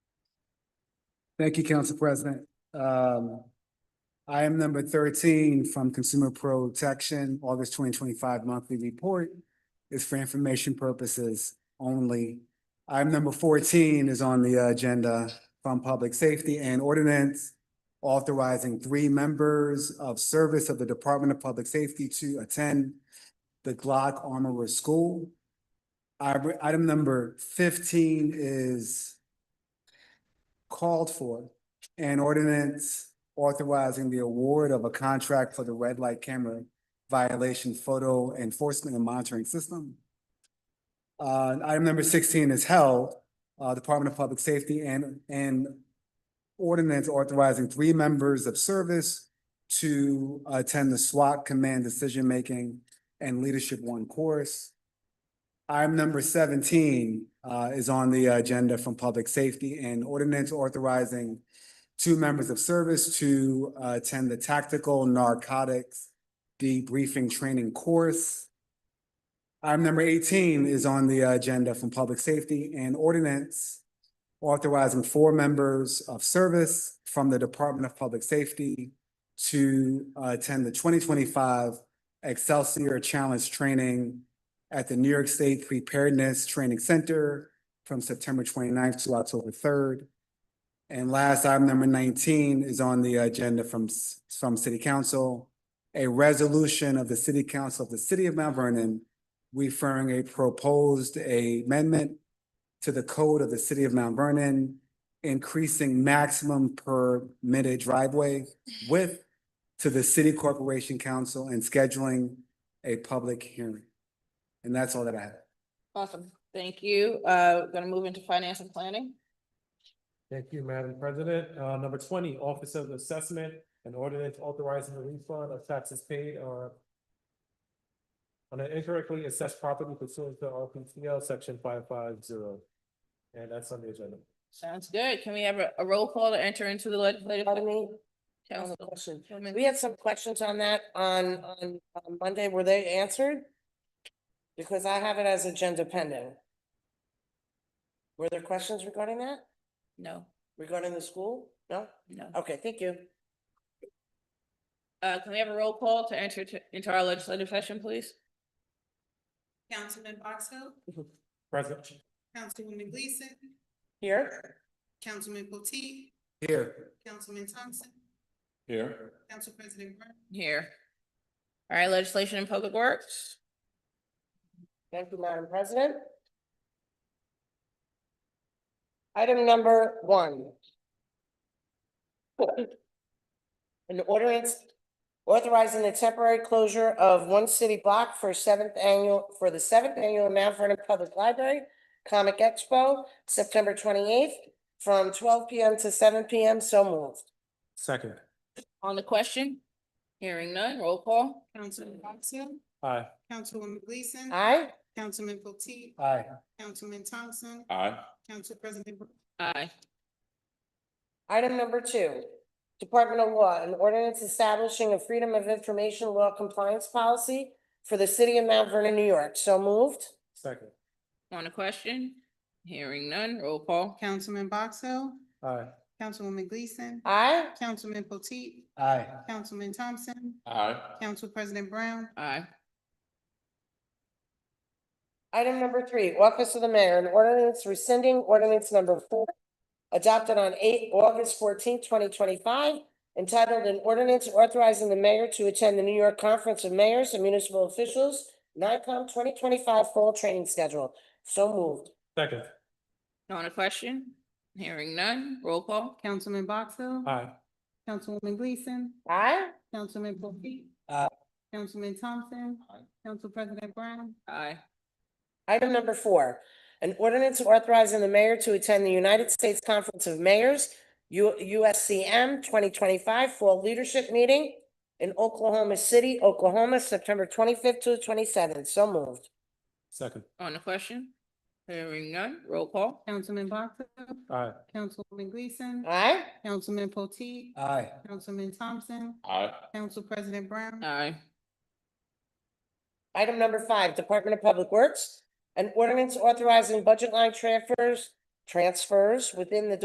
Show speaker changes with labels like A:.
A: Thank you, Council President. Um, item number thirteen from Consumer Protection, August twenty twenty-five monthly report is for information purposes only. Item number fourteen is on the agenda from Public Safety and Ordinance authorizing three members of service of the Department of Public Safety to attend the Glock Armorer School. Item item number fifteen is called for an ordinance authorizing the award of a contract for the red light camera violation photo enforcement and monitoring system. Uh, item number sixteen is held, uh, Department of Public Safety and, and ordinance authorizing three members of service to attend the SWAT Command Decision Making and Leadership One course. Item number seventeen uh, is on the agenda from Public Safety and Ordinance authorizing two members of service to uh, attend the Tactical Narcotics Debriefing Training Course. Item number eighteen is on the agenda from Public Safety and Ordinance authorizing four members of service from the Department of Public Safety to uh, attend the twenty twenty-five Excelsior Challenge Training at the New York State Preparedness Training Center from September 29th to October third. And last item number nineteen is on the agenda from, s- from City Council. A resolution of the City Council of the City of Mount Vernon referring a proposed amendment to the code of the City of Mount Vernon, increasing maximum permitted driveway width to the City Corporation Council and scheduling a public hearing. And that's all that I have.
B: Awesome, thank you. Uh, gonna move into finance and planning.
C: Thank you, Madam President. Uh, number twenty, Office of Assessment and Ordinance authorizing the refund of taxes paid or on an incorrectly assessed property pursuant to RPTL section five five zero. And that's on the agenda.
B: Sounds good. Can we have a, a roll call to enter into the legislative?
D: Pardon me? I have a
B: Council-
D: question.
B: Councilwoman-
D: We had some questions on that on, on on Monday. Were they answered? Because I have it as agenda pending. Were there questions regarding that?
B: No,
D: Regarding the school? No?
B: no.
D: Okay, thank you.
B: Uh, can we have a roll call to enter to, into our legislative session, please?
E: Councilman Box Hill,
C: Present.
E: Councilwoman Gleason,
D: Here?
E: Councilman Potteet,
A: Here.
E: Councilman Thompson,
C: Here.
E: Council President Brown,
B: Here. All right, legislation and public works.
D: Thank you, Madam President. Item number one. An ordinance authorizing the temporary closure of one city block for seventh annual, for the seventh annual Mount Vernon Public Library Comic Expo, September twenty-eighth, from twelve PM to seven PM, so moved.
C: Second.
B: On the question? Hearing none, roll call.
E: Councilman Box Hill,
C: Aye.
E: Councilwoman Gleason,
D: Aye?
E: Councilman Potteet,
A: Aye.
E: Councilman Thompson,
C: Aye.
E: Council President Brown,
B: Aye.
D: Item number two, Department of Law, an ordinance establishing a Freedom of Information Law Compliance Policy for the city of Mount Vernon, New York. So moved.
C: Second.
B: On the question? Hearing none, roll call.
E: Councilman Box Hill,
C: Aye.
E: Councilwoman Gleason,
D: Aye.
E: Councilman Potteet,
A: Aye.
E: Councilman Thompson,
C: Aye.
E: Council President Brown,
B: Aye.
D: Item number three, Office of the Mayor, an ordinance rescinding ordinance number four, adopted on eight August fourteenth, twenty twenty-five, entitled an ordinance authorizing the mayor to attend the New York Conference of Mayors and Municipal Officials, NICOM twenty twenty-five Fall Training Schedule. So moved.
C: Second.
B: On the question? Hearing none, roll call.
E: Councilman Box Hill,
C: Aye.
E: Councilwoman Gleason,
D: Aye.
E: Councilman Potteet,
A: Aye.
E: Councilman Thompson,
C: Aye.
E: Council President Brown,
B: Aye.
D: Item number four, an ordinance authorizing the mayor to attend the United States Conference of Mayors, U- USCM twenty twenty-five Fall Leadership Meeting in Oklahoma City, Oklahoma, September twenty-fifth to the twenty-seventh. So moved.
C: Second.
B: On the question? Hearing none, roll call.
E: Councilman Box Hill,
C: Aye.
E: Councilwoman Gleason,
D: Aye.
E: Councilman Potteet,
A: Aye.
E: Councilman Thompson,
C: Aye.
E: Council President Brown,
B: Aye.
D: Item number five, Department of Public Works, an ordinance authorizing budget line transfers, transfers within the